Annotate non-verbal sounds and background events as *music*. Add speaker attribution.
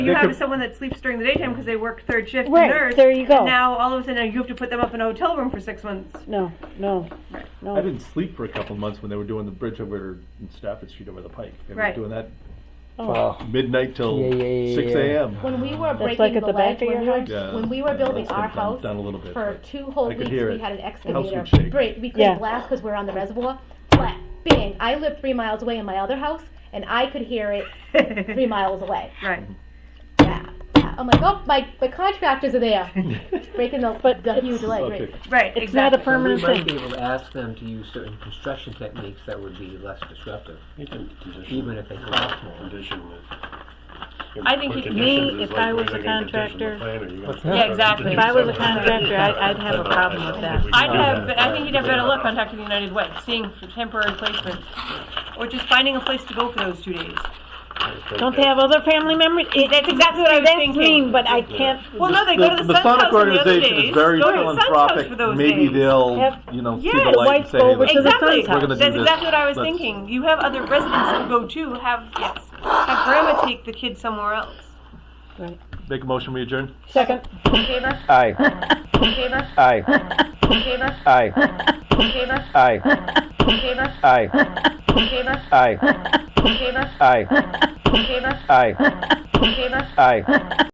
Speaker 1: You
Speaker 2: They
Speaker 1: have
Speaker 2: could-
Speaker 1: someone that sleeps during the daytime because they work third shift
Speaker 3: Right,
Speaker 1: nurse.
Speaker 3: there you go.
Speaker 1: and now all of a sudden you have to put them up in a hotel room for six months.
Speaker 3: No, no,
Speaker 1: Right.
Speaker 3: no.
Speaker 2: I didn't sleep for a couple months when they were doing the bridge over in Stafford Street over the Pike. They were
Speaker 1: Right.
Speaker 2: doing that
Speaker 3: Oh.
Speaker 2: midnight till
Speaker 4: Yeah, yeah, yeah,
Speaker 2: six
Speaker 4: yeah.
Speaker 2: a.m.
Speaker 5: When we were breaking
Speaker 3: like
Speaker 5: the,
Speaker 3: at the back
Speaker 5: ledge,
Speaker 3: of
Speaker 5: when,
Speaker 3: your
Speaker 5: we were,
Speaker 3: house?
Speaker 2: Yeah,
Speaker 5: when we were
Speaker 2: yeah,
Speaker 5: building
Speaker 2: that's
Speaker 5: our
Speaker 2: been done-
Speaker 5: house
Speaker 2: done a little bit,
Speaker 5: for
Speaker 2: but
Speaker 5: two whole
Speaker 2: I could
Speaker 5: weeks,
Speaker 2: hear
Speaker 5: we
Speaker 2: it.
Speaker 5: had an
Speaker 2: House would
Speaker 5: excavator.
Speaker 2: shake.
Speaker 5: Break. We couldn't
Speaker 3: Yeah.
Speaker 5: blast because we're on the reservoir. Flat, bang! I lived three miles away in my other house, and I could hear it three miles away.
Speaker 1: *laughs* right.
Speaker 5: Yeah. yeah. I'm like, oh, my, my contractors
Speaker 2: *laughs*
Speaker 5: are there, breaking the,
Speaker 3: But
Speaker 5: the
Speaker 3: it's-
Speaker 5: huge ledge.
Speaker 2: Okay.
Speaker 5: Right.
Speaker 1: Right.
Speaker 3: It's not a
Speaker 1: exactly.
Speaker 3: permanent
Speaker 6: We might
Speaker 3: thing.
Speaker 6: be able to ask them to use certain construction techniques that would be less disruptive,
Speaker 7: You can condition.
Speaker 6: even if they cost more.
Speaker 7: Condition with.
Speaker 3: I think
Speaker 7: Put
Speaker 3: it- me,
Speaker 7: conditions is
Speaker 3: if
Speaker 7: like
Speaker 3: I
Speaker 7: where
Speaker 3: was a
Speaker 7: they're gonna condition the
Speaker 3: contractor-
Speaker 7: plan or you're gonna-
Speaker 6: Yeah,
Speaker 8: exactly.
Speaker 3: If I was a contractor, I, I'd have a problem with that.
Speaker 7: uh, We can
Speaker 1: I'd
Speaker 7: do
Speaker 1: have,
Speaker 7: that.
Speaker 1: I think you'd have better luck contacting the United Way, seeing for temporary placement, or just finding a place to go for those two days.
Speaker 3: Don't they have other family members? It-
Speaker 1: That's exactly what I was
Speaker 3: That's
Speaker 1: thinking.
Speaker 3: mean, but I can't,
Speaker 1: Well, no, they go to the Sun's house
Speaker 2: Masonic
Speaker 1: on the other
Speaker 2: organization
Speaker 1: days.
Speaker 2: is very
Speaker 1: go to the Sun's house
Speaker 2: philanthropic.
Speaker 1: for those
Speaker 2: Maybe
Speaker 1: days.
Speaker 2: they'll,
Speaker 3: Have-
Speaker 2: you know, see
Speaker 1: Yeah,
Speaker 2: the
Speaker 1: the
Speaker 2: light and
Speaker 3: whites
Speaker 2: say
Speaker 3: go
Speaker 2: that
Speaker 3: over to the
Speaker 1: Exactly.
Speaker 3: Sun's
Speaker 2: We're gonna do
Speaker 3: house.
Speaker 1: That's
Speaker 2: this.
Speaker 1: exactly what I was
Speaker 2: Let's-
Speaker 1: thinking. You have other residents who go too. Have yes, have grandma take the kids somewhere else.
Speaker 2: Make a motion, we adjourn.
Speaker 3: second,
Speaker 5: In favor?
Speaker 4: Aye.
Speaker 5: In favor?
Speaker 4: Aye.
Speaker 5: In favor?
Speaker 4: Aye.
Speaker 5: In favor?
Speaker 4: Aye.
Speaker 5: In favor?
Speaker 4: Aye.
Speaker 5: In favor?
Speaker 4: Aye.
Speaker 5: In favor?
Speaker 4: Aye.
Speaker 5: In favor?
Speaker 4: Aye.
Speaker 5: In favor?
Speaker 4: Aye.